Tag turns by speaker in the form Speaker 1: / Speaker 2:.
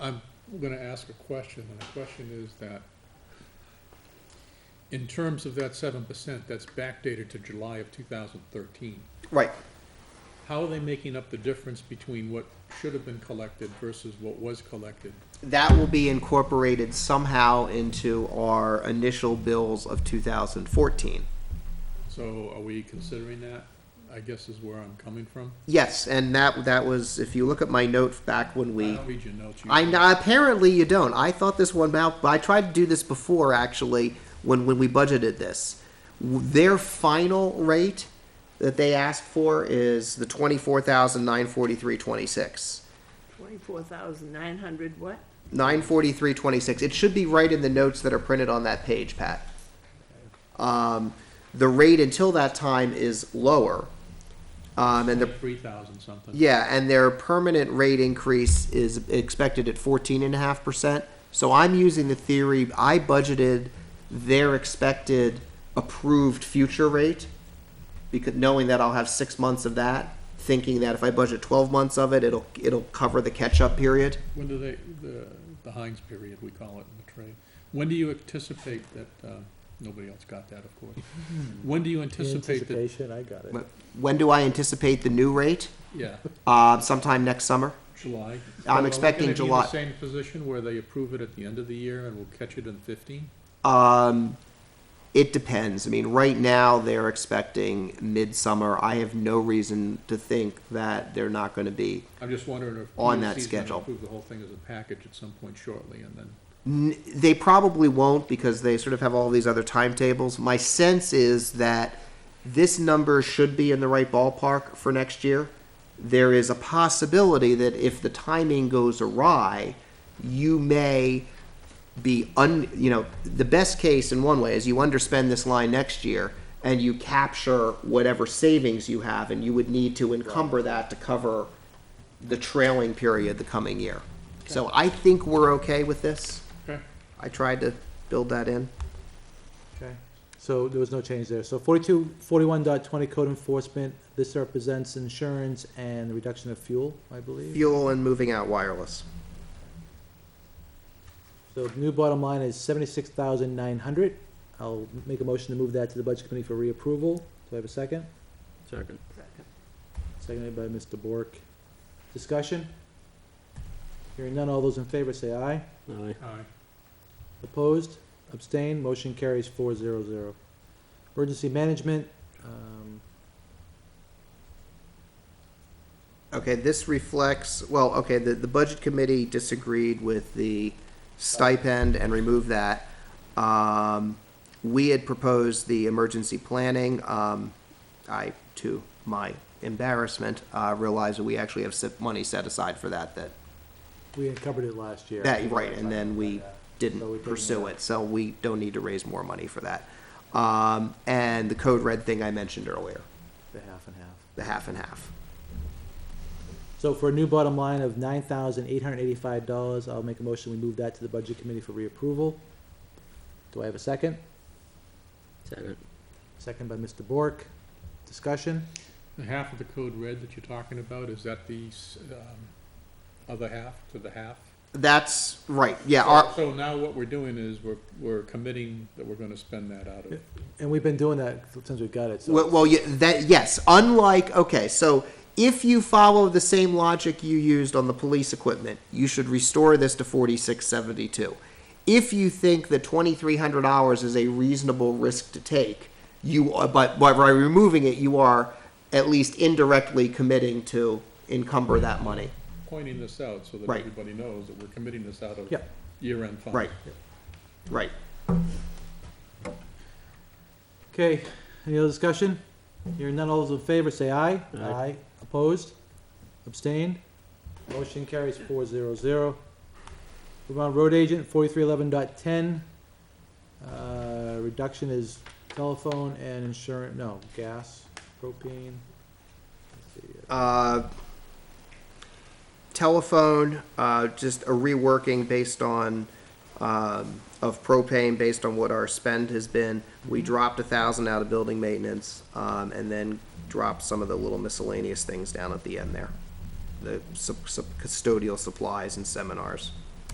Speaker 1: gonna ask a question, and the question is that in terms of that seven percent, that's backdated to July of two thousand thirteen.
Speaker 2: Right.
Speaker 1: How are they making up the difference between what should have been collected versus what was collected?
Speaker 2: That will be incorporated somehow into our initial bills of 2014.
Speaker 1: So are we considering that? I guess is where I'm coming from.
Speaker 2: Yes, and that that was if you look at my note back when
Speaker 1: I
Speaker 2: we
Speaker 1: don't read your notes. you-
Speaker 2: I kn- apparently you don't. I thought this one out, but I tried to do this before actually when when we budgeted this. W- Their final rate that they asked for is the twenty four thousand nine forty three twenty six.
Speaker 3: Twenty-four thousand nine hundred what?
Speaker 2: Nine forty three twenty six. It should be right in the notes that are printed on that page, Pat. Um, the rate until that time is lower, um, and the
Speaker 1: Three thousand something.
Speaker 2: Yeah, and their permanent rate increase is expected at fourteen and a half percent. So I'm using the theory, I budgeted their expected approved future rate. Because knowing that I'll have six months of that, thinking that if I budget twelve months of it, it'll, it'll cover the catch-up period.
Speaker 1: When do they, the, the Heinz period, we call it in the trade, when do you anticipate that, uh, nobody else got that, of course. When do you anticipate that,
Speaker 4: Anticipation, I got it.
Speaker 2: But When do I anticipate the new rate?
Speaker 1: yeah,
Speaker 2: Uh, sometime next summer?
Speaker 1: July?
Speaker 2: I'm expecting July.
Speaker 1: Are we gonna be in the same position where they approve it at the end of the year and we'll catch it in fifteen?
Speaker 2: Um, it depends. I mean, right now they're expecting midsummer. I have no reason to think that they're not gonna be
Speaker 1: I'm just wondering if.
Speaker 2: On that
Speaker 1: PLC's gonna
Speaker 2: schedule.
Speaker 1: Approve the whole thing as a package at some point shortly and then,
Speaker 2: N- they probably won't because they sort of have all these other timetables. My sense is that this number should be in the right ballpark for next year. There is a possibility that if the timing goes awry, you may be un you know the best case in one way is you underspend this line next year and you capture whatever savings you have and you would need to encumber that to cover the trailing period the coming year. So I think we're okay with this.
Speaker 1: okay,
Speaker 2: I tried to build that in.
Speaker 4: Okay, so there was no change there. So forty-two, forty-one dot twenty code enforcement, this represents insurance and the reduction of fuel, I believe.
Speaker 2: Fuel and moving out wireless.
Speaker 4: So the new bottom line is seventy-six thousand nine hundred. I'll make a motion to move that to the budget committee for reapproval. Do I have a second?
Speaker 5: Second.
Speaker 4: Seconded by Mr. Bork. Discussion? Hearing none, all those in favor say aye.
Speaker 5: Aye.
Speaker 1: alright.
Speaker 4: Opposed? Abstained? Motion carries four zero zero. Emergency management, um,
Speaker 2: Okay, this reflects, well, okay, the, the budget committee disagreed with the stipend and removed that. Um, we had proposed the emergency planning, um, I, to my embarrassment, uh, realized that we actually have set- money set aside for that, that,
Speaker 4: we uncovered it last year.
Speaker 2: that, right, and then we
Speaker 4: So we
Speaker 2: didn't
Speaker 4: didn't,
Speaker 2: pursue
Speaker 4: uh,
Speaker 2: it, so we don't need to raise more money for that. Um, and the code red thing I mentioned earlier,
Speaker 4: The half and half.
Speaker 2: the half and half.
Speaker 4: So for a new bottom line of nine thousand eight hundred eighty-five dollars, I'll make a motion, we move that to the budget committee for reapproval. Do I have a second?
Speaker 5: Second.
Speaker 4: Second by Mr. Bork. Discussion?
Speaker 1: The half of the code red that you're talking about, is that the, s- um, other half to the half?
Speaker 2: That's right. Yeah.
Speaker 1: So-
Speaker 2: Our,
Speaker 1: So now what we're doing is we're, we're committing that we're gonna spend that out of.
Speaker 4: And we've been doing that since we got it,
Speaker 2: well,
Speaker 4: so.
Speaker 2: well, yeah, that yes. Unlike okay, so if you follow the same logic you used on the police equipment, you should restore this to forty six seventy two. If you think that twenty three hundred hours is a reasonable risk to take, you are, but but by removing it, you are at least indirectly committing to encumber that money.
Speaker 1: pointing this out so that
Speaker 2: Right.
Speaker 1: everybody knows that we're committing this out of
Speaker 4: Yeah.
Speaker 1: year-end funds.
Speaker 2: Right. Right.
Speaker 4: Okay, any other discussion? Hearing none, all those in favor say aye.
Speaker 5: Aye.
Speaker 4: Opposed? Abstained? Motion carries four zero zero. Move on, road agent, forty-three eleven dot ten. Uh, reduction is telephone and insurance, no, gas, propane. Let's see, uh,
Speaker 2: Uh, telephone, uh, just a reworking based on, um, of propane, based on what our spend has been. We dropped a thousand out of building maintenance, um, and then dropped some of the little miscellaneous things down at the end there. The sup- sup- custodial supplies and seminars.